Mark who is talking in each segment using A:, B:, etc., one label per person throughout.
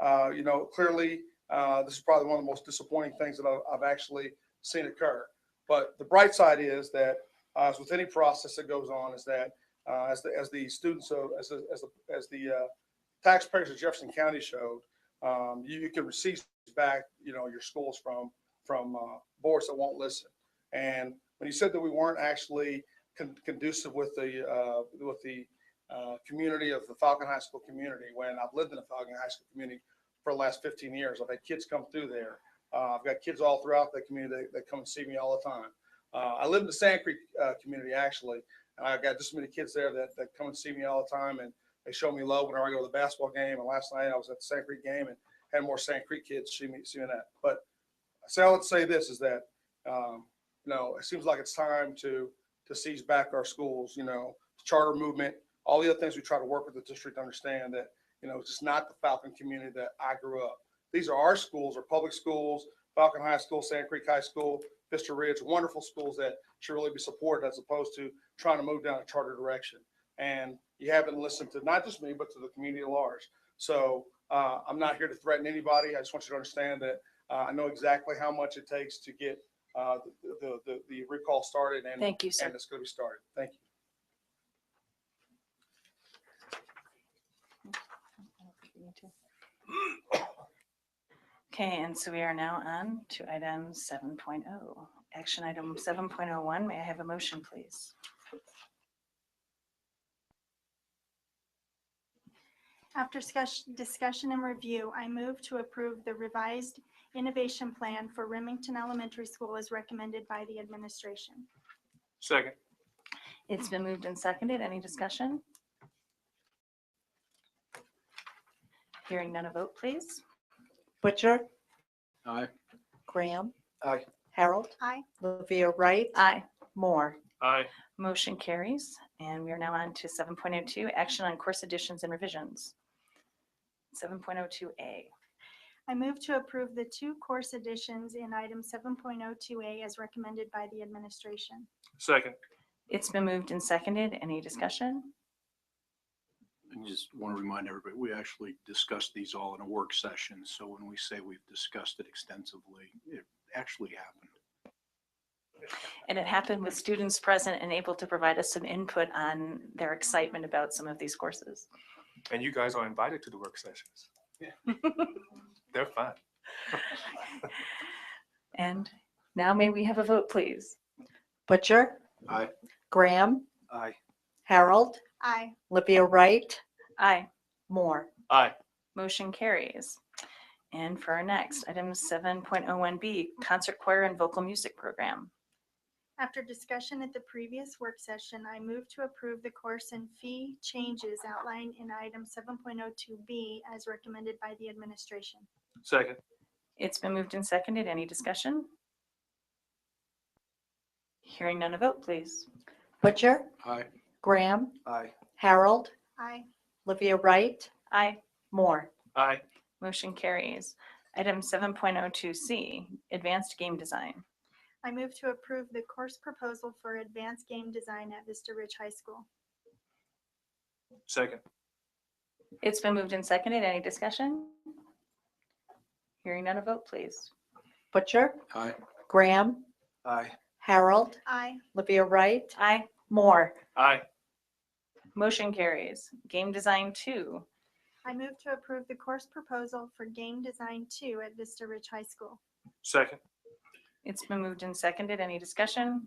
A: Uh, you know, clearly, uh, this is probably one of the most disappointing things that I've, I've actually seen occur. But the bright side is that, uh, as with any process that goes on, is that, uh, as the, as the students, of as the, as the, as the, uh, taxpayers of Jefferson County showed, um, you, you can receive back, you know, your schools from, from, uh, boards that won't listen. And when you said that we weren't actually con- conducive with the, uh, with the, uh, community of the Falcon High School community, when I've lived in the Falcon High School community for the last fifteen years, I've had kids come through there. Uh, I've got kids all throughout the community that, that come and see me all the time. Uh, I live in the Sand Creek, uh, community actually, and I've got just as many kids there that, that come and see me all the time and they show me love whenever I go to the basketball game. And last night I was at the Sand Creek game and had more Sand Creek kids see me seeing that. But so I would say this is that um, you know it seems like it's time to to seize back our schools. You know, charter movement, all the other things we try to work with the district to understand that you know it's just not the Falcon community that I grew up. These are our schools, our public schools, Falcon High School, Sand Creek High School, Vista Ridge, wonderful schools that should really be supported as opposed to trying to move down a charter direction and you haven't listened to not just me, but to the community at large. So uh, I'm not here to threaten anybody. I just want you to understand that uh, I know exactly how much it takes to get uh, the, the- the, the recall started and,
B: Thank you, sir.
A: and it's going to be started. Thank you.
B: Okay, and so we are now on to item 7.0. Action item 7.01, may I have a motion, please?
C: After discussion, discussion and review, I move to approve the revised innovation plan for Remington Elementary School as recommended by the administration.
D: Second.
B: It's been moved and seconded. Any discussion? Hearing none, a vote, please.
E: Butcher,
D: Aye.
E: Graham.
D: Aye.
E: Harold.
C: Aye.
E: Livia Wright.
B: Aye.
E: Moore.
D: Aye.
B: Motion carries, and we are now on to 7.02, action on course additions and revisions. 7.02A.
C: I move to approve the two course additions in item 7.02A as recommended by the administration.
D: Second.
B: It's been moved and seconded. Any discussion?
F: I just want to remind everybody, we actually discussed these all in a work session. So when we say we've discussed it extensively, it actually happened.
B: And it happened with students present and able to provide us some input on their excitement about some of these courses.
D: And you guys are invited to the work sessions.
A: Yeah.
D: They're fun.
B: And now may we have a vote, please?
E: Butcher.
F: Aye.
E: Graham.
F: Aye.
E: Harold.
C: Aye.
E: Livia Wright.
B: Aye.
E: Moore.
D: Aye.
B: Motion carries. And for our next, item 7.01B, Concert Choir and Vocal Music Program.
C: After discussion at the previous work session, I move to approve the course and fee changes outlined in item 7.02B as recommended by the administration.
D: Second.
B: It's been moved and seconded. Any discussion? Hearing none, a vote, please.
E: Butcher,
F: Aye.
E: Graham.
F: Aye.
E: Harold.
C: Aye.
E: Livia Wright.
B: Aye.
E: Moore.
D: Aye.
B: Motion carries. Item 7.02C, Advanced Game Design.
C: I move to approve the course proposal for advanced game design at Vista Ridge High School.
D: Second.
B: It's been moved and seconded. Any discussion? Hearing none, a vote, please.
E: Butcher,
F: Aye.
E: Graham.
F: Aye.
E: Harold.
C: Aye.
E: Livia Wright.
B: Aye.
E: Moore.
D: Aye.
B: Motion carries. Game Design 2.
C: I move to approve the course proposal for Game Design 2 at Vista Ridge High School.
D: Second.
B: It's been moved and seconded. Any discussion?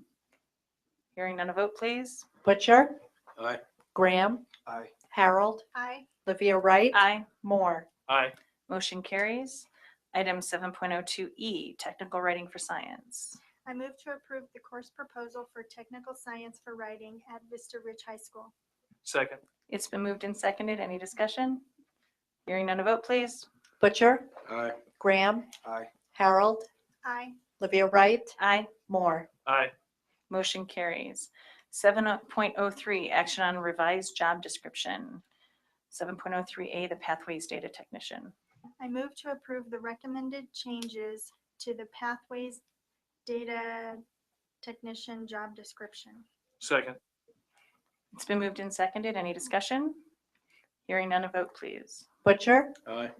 B: Hearing none, a vote, please.
E: Butcher,
F: Aye.
E: Graham.
F: Aye.
E: Harold.
C: Aye.
E: Livia Wright.
B: Aye.
E: Moore.
D: Aye.
B: Motion carries. Item 7.02E, E, Technical Writing for Science.
C: I move to approve the course proposal for Technical Science for Writing at Vista Ridge High School.
D: Second.
B: It's been moved and seconded. Any discussion? Hearing none, a vote, please.
E: Butcher,
F: Aye.
E: Graham.
F: Aye.
E: Harold.
C: Aye.
E: Livia Wright.
B: Aye.
E: Moore.
D: Aye.
B: Motion carries. 7.03, Action on Revised Job Description. 7.03A, The Pathways Data Technician.
C: I move to approve the recommended changes to the Pathways Data Technician job description.
D: Second.
B: It's been moved and seconded. Any discussion? Hearing none, a vote, please.
E: Butcher,
F: Aye.